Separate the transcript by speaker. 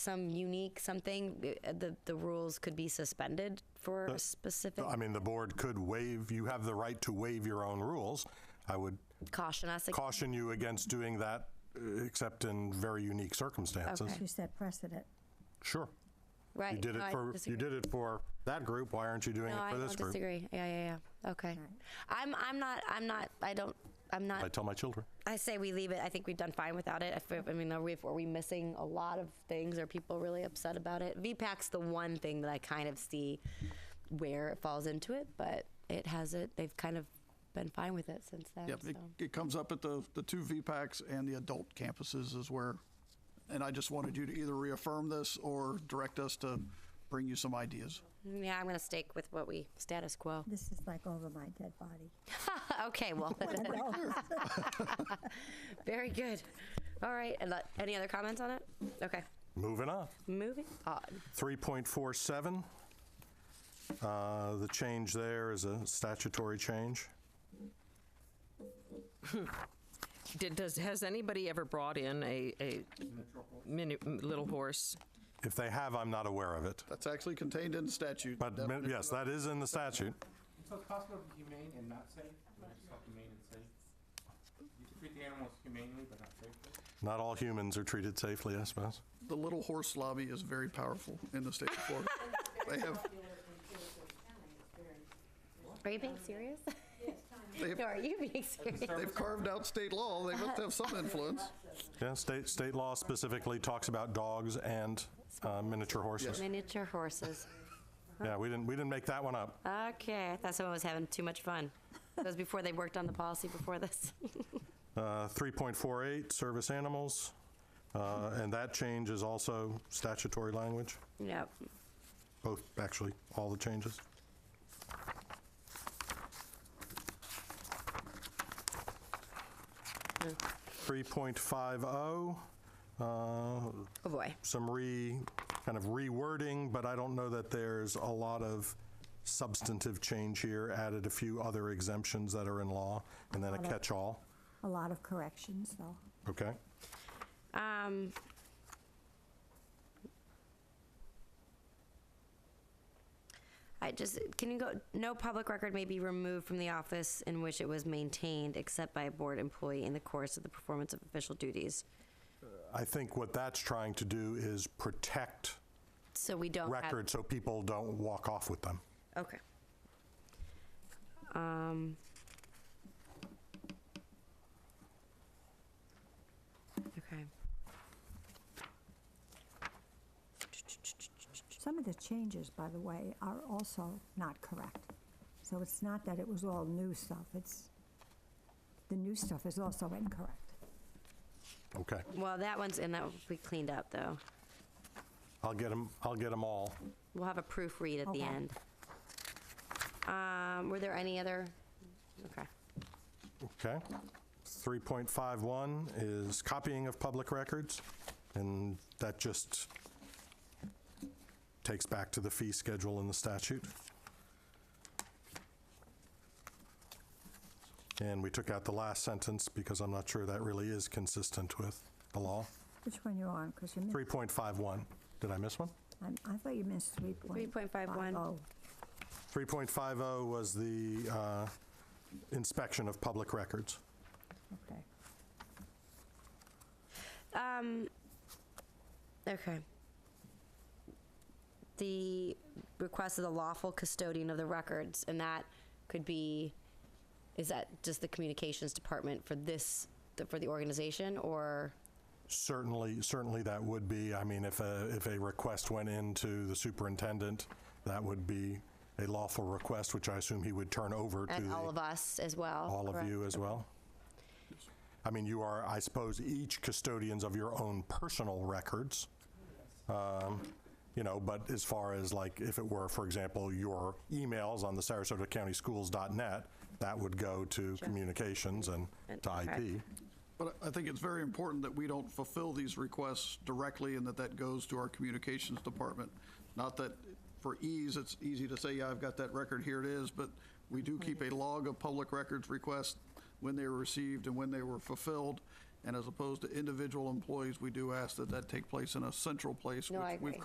Speaker 1: some unique something, uh, the, the rules could be suspended for a specific.
Speaker 2: I mean, the board could waive, you have the right to waive your own rules. I would
Speaker 1: Caution us. ag-
Speaker 2: caution you against doing that, uh, except in very unique circumstances.
Speaker 1: Okay.
Speaker 3: You set precedent.
Speaker 2: Sure.
Speaker 1: Right.
Speaker 2: You did
Speaker 1: No,
Speaker 2: it
Speaker 1: I
Speaker 2: for, you
Speaker 1: disagree.
Speaker 2: did it for that group, why aren't you doing
Speaker 1: No,
Speaker 2: it
Speaker 1: I
Speaker 2: for this
Speaker 1: don't
Speaker 2: group?
Speaker 1: disagree. Yeah, yeah, yeah. Okay. I'm, I'm not, I'm not, I don't, I'm
Speaker 2: I
Speaker 1: not,
Speaker 2: tell my children.
Speaker 1: I say we leave it. I think we've done fine without it. I feel- I mean, are we, are we missing a lot of things? Are people really upset about it? VPAC's the one thing that I kind of see where it falls into it, but it has it, they've kind of been fine with it since then.
Speaker 4: Yep, it,
Speaker 1: so.
Speaker 4: it comes up at the, the two VPACs and the adult campuses is where, and I just wanted you to either reaffirm this or direct us to bring you some ideas.
Speaker 1: Yeah, I'm gonna stick with what we status quo.
Speaker 3: This is like over my dead body.
Speaker 1: okay, well, very good. All right, and let, any other comments on it? Okay,
Speaker 2: Moving on.
Speaker 1: moving on.
Speaker 2: 3.47, uh, the change there is a statutory change.
Speaker 5: Did, does, has anybody ever brought in a, a mini, little horse?
Speaker 2: If they have, I'm not aware of it.
Speaker 4: That's actually contained in statute.
Speaker 2: But mi-
Speaker 4: Definition
Speaker 2: yes, that is in the statute.
Speaker 6: So it's possible to be humane and not safe, or just not humane and safe? You can treat the animals humanely but not safely?
Speaker 2: Not all humans are treated safely, I suppose.
Speaker 4: The little horse lobby is very powerful in the state of Florida. They have,
Speaker 1: Are you being serious? no,
Speaker 4: they have,
Speaker 1: are you being serious?
Speaker 4: they've carved out state law, they must have some influence.
Speaker 2: Yeah, state, state law specifically talks about dogs and uh, miniature horses.
Speaker 1: Miniature horses.
Speaker 2: Yeah, we didn't, we didn't make that one
Speaker 1: Uh,
Speaker 2: up.
Speaker 1: Okay, I thought someone was having too much fun. That was before they worked on the policy before this.
Speaker 2: Uh, 3.48, service animals, uh, and that change is also statutory language,
Speaker 1: yep.
Speaker 2: both, actually, all the changes. Three point five oh, uh,
Speaker 1: Oh boy.
Speaker 2: some re, kind of rewording, but I don't know that there's a lot of substantive change here. Added a few other exemptions that are in law, and then a catch-all.
Speaker 3: A lot of corrections, though.
Speaker 2: Okay.
Speaker 1: Um. I just, can you go, no public record may be removed from the office in which it was maintained except by a board employee in the course of the performance of official duties.
Speaker 2: I think what that's trying to do is protect
Speaker 1: So we don't have.
Speaker 2: records so people don't walk off with them.
Speaker 1: Okay. Um. Okay.
Speaker 3: Some of the changes, by the way, are also not correct. So it's not that it was all new stuff, it's, the new stuff is also incorrect.
Speaker 2: Okay.
Speaker 1: Well, that one's, and that we cleaned up though.
Speaker 2: I'll get them, I'll get them all.
Speaker 1: We'll have a proofread at the
Speaker 3: Okay.
Speaker 1: end. Um, were there any other? Okay.
Speaker 2: Okay. 3.51 is copying of public records, and that just takes back to the fee schedule in the statute. And we took out the last sentence because I'm not sure that really is consistent with the law.
Speaker 3: Which one you on? Because you missed,
Speaker 2: 3.51, did I miss one?
Speaker 3: I'm- I thought you missed 3.50.
Speaker 1: 3.51.
Speaker 3: Oh.
Speaker 2: 3.50 was the uh, inspection of public records.
Speaker 3: Okay.
Speaker 1: Um, okay. The request of the lawful custodian of the records, and that could be, is that just the communications department for this, the- for the organization, or?
Speaker 2: Certainly, certainly that would be, I mean, if a, if a request went into the superintendent, that would be a lawful request, which I assume he would turn over to
Speaker 1: And all of
Speaker 2: the-
Speaker 1: us as well?
Speaker 2: all of
Speaker 1: correct?
Speaker 2: you as well? I mean, you are, I suppose, each custodians of your own personal records, um, you know, but as far as like, if it were, for example, your emails on the Sarasota County Schools.net, that would go to communications and
Speaker 1: And-
Speaker 2: to
Speaker 1: okay.
Speaker 2: IP.
Speaker 4: But I think it's very important that we don't fulfill these requests directly and that that goes to our communications department. Not that for ease, it's easy to say, yeah, I've got that record, here it is, but we do keep a log of public records requests when they were received and when they were fulfilled. And as opposed to individual employees, we do ask that that take place in a central place,
Speaker 1: No, I
Speaker 4: which we've
Speaker 1: agree.